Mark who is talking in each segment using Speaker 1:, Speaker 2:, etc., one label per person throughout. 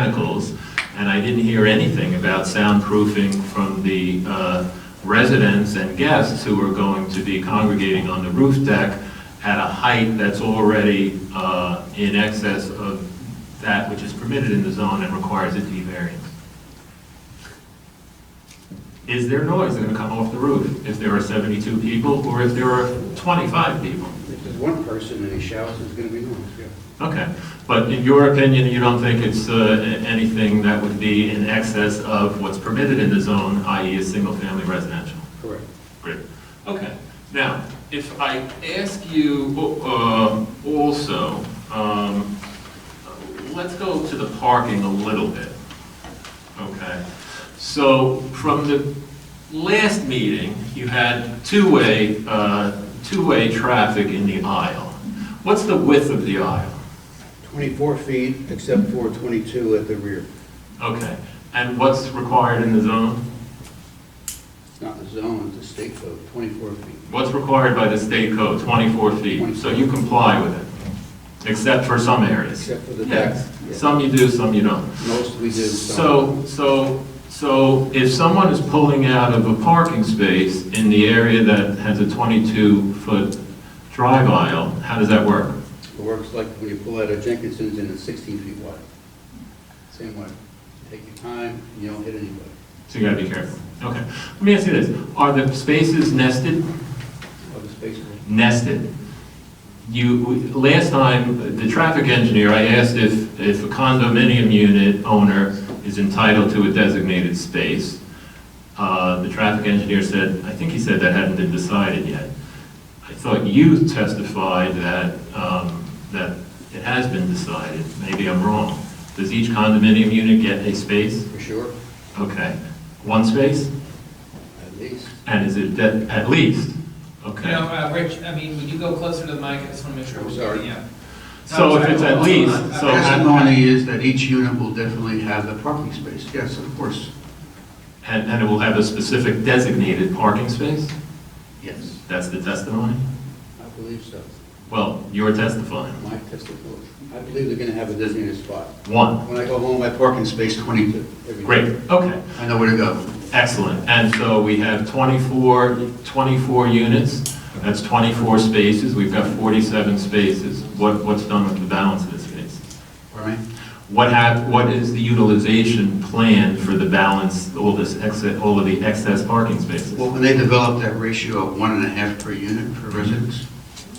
Speaker 1: mechanicals, and I didn't hear anything about soundproofing from the uh, residents and guests who are going to be congregating on the roof deck at a height that's already uh, in excess of that which is permitted in the zone and requires it to be variance. Is there noise going to come off the roof if there are 72 people or if there are 25 people?
Speaker 2: If there's one person and he shouts, it's going to be noise, yeah.
Speaker 1: Okay, but in your opinion, you don't think it's uh, a- anything that would be in excess of what's permitted in the zone, i.e. a single-family residential?
Speaker 2: Correct.
Speaker 1: Great. Okay, now, if I ask you uh, also, um, let's go to the parking a little bit. Okay, so from the last meeting, you had two-way, uh, two-way traffic in the aisle. What's the width of the aisle?
Speaker 2: 24 feet, except for 22 at the rear.
Speaker 1: Okay, and what's required in the zone?
Speaker 2: It's not the zone, it's the state code, 24 feet.
Speaker 1: What's required by the state code, 24 feet, so you comply with it, except for some areas?
Speaker 2: Except for the
Speaker 1: Yes,
Speaker 2: back, yeah.
Speaker 1: some you do, some you don't.
Speaker 2: Most we do.
Speaker 1: So,
Speaker 2: some.
Speaker 1: so, so if someone is pulling out of a parking space in the area that has a 22-foot drive aisle, how does that work?
Speaker 2: It works like when you pull out of Jenkinson's and it's 16 feet wide. Same way. Take your time, and you don't hit anybody.
Speaker 1: So you gotta be careful. Okay, let me ask you this, are the spaces nested?
Speaker 2: Other spaces.
Speaker 1: nested. You, last time, the traffic engineer, I asked if, if a condominium unit owner is entitled to a designated space. Uh, The traffic engineer said, I think he said that hadn't been decided yet. I thought you testified that, um, that it has been decided. Maybe I'm wrong. Does each condominium unit get a space?
Speaker 2: For sure,
Speaker 1: Okay, one space?
Speaker 2: at least.
Speaker 1: And is it de- at least? Okay.
Speaker 3: You know, uh, Rich, I mean, would you go closer to the mic? I just want to make sure.
Speaker 2: I'm
Speaker 3: we're
Speaker 2: sorry.
Speaker 3: getting you.
Speaker 1: So if it's at least, so-
Speaker 2: Testimony is that each unit will definitely have a parking space, yes, of course,
Speaker 1: And, and it will have a specific designated parking space?
Speaker 2: yes.
Speaker 1: That's the testimony?
Speaker 2: I believe so.
Speaker 1: Well, you're testifying.
Speaker 2: My testimony. I believe they're going to have a designated spot.
Speaker 1: One.
Speaker 2: When I go home, I park in space 22. every day.
Speaker 1: Great, okay,
Speaker 2: I know where to go.
Speaker 1: excellent. And so we have 24, 24 units, that's 24 spaces, we've got 47 spaces. What, what's done with the balance of the space?
Speaker 2: Pardon me?
Speaker 1: What hap, what is the utilization plan for the balance, all this excess, all of the excess parking spaces?
Speaker 2: Well, when they developed that ratio of one and a half per unit
Speaker 1: Mm-hmm.
Speaker 2: per residence,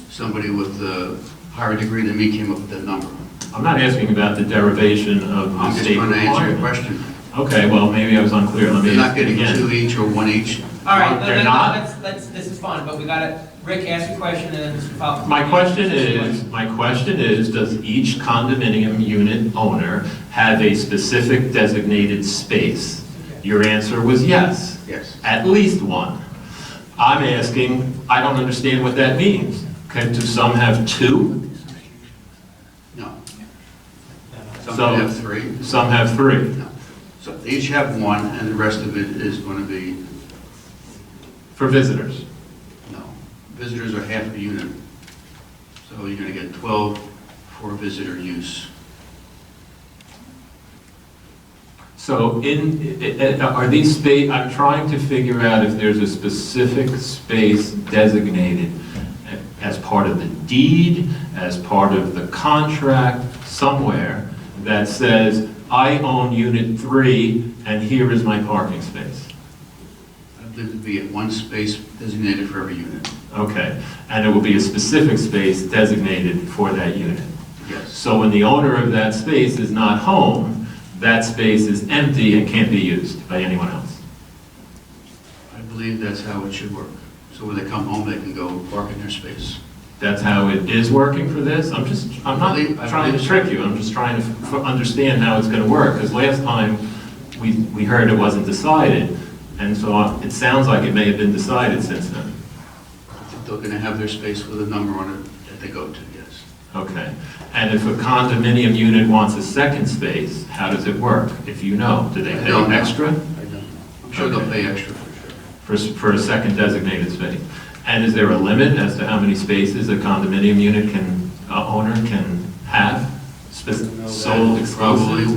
Speaker 2: somebody with a higher degree than me came up with that number.
Speaker 1: I'm not asking about the derivation of the
Speaker 2: I'm just
Speaker 1: state
Speaker 2: trying to answer your
Speaker 1: requirement.
Speaker 2: question.
Speaker 1: Okay, well, maybe I was unclear, let
Speaker 2: They're
Speaker 1: me
Speaker 2: not
Speaker 1: ask it
Speaker 2: getting
Speaker 1: again. Uh,
Speaker 2: two each or one each.
Speaker 3: All right, let-
Speaker 1: They're
Speaker 3: let-
Speaker 1: not?
Speaker 3: let's, let's, this is fun, but we gotta, Rick, ask your question and then Mr. Falcone.
Speaker 1: My question is, my question is, does each condominium unit owner have a specific designated space? Your answer was yes,
Speaker 2: Yes.
Speaker 1: at least one. I'm asking, I don't understand what that means. Okay, do some have two?
Speaker 2: No.
Speaker 1: So-
Speaker 2: Some have three.
Speaker 1: Some have three.
Speaker 2: No. So they each have one, and the rest of it is going to be,
Speaker 1: For visitors,
Speaker 2: no. Visitors are half a unit. So you're going to get 12 for visitor use.
Speaker 1: so in, i- i- are these space, I'm trying to figure out if there's a specific space designated as part of the deed, as part of the contract, somewhere, that says, I own unit three, and here is my parking space.
Speaker 2: I believe it'd be at one space designated for every unit.
Speaker 1: Okay, and it will be a specific space designated for that unit.
Speaker 2: Yes.
Speaker 1: So when the owner of that space is not home, that space is empty and can't be used by anyone else.
Speaker 2: I believe that's how it should work. So when they come home, they can go park in their space.
Speaker 1: That's how it is working for this? I'm just, I'm not
Speaker 2: I believe- I
Speaker 1: trying to
Speaker 2: believe-
Speaker 1: trick you, I'm just trying to f- understand how it's gonna work, because last time, we, we heard it wasn't decided, and so it sounds like it may have been decided since then.
Speaker 2: I think They're going to have their space with a number on it that they go to, yes.
Speaker 1: Okay, and if a condominium unit wants a second space, how does it work? If you know, do they
Speaker 2: I
Speaker 1: pay
Speaker 2: don't know.
Speaker 1: extra?
Speaker 2: I don't know. I'm sure they'll
Speaker 1: Okay.
Speaker 2: pay extra for sure.
Speaker 1: for, s- for a second designated space. And is there a limit as to how many spaces a condominium unit can, uh, owner can have? Spec-
Speaker 2: I don't know that.
Speaker 1: Sole exclusive?
Speaker 2: Probably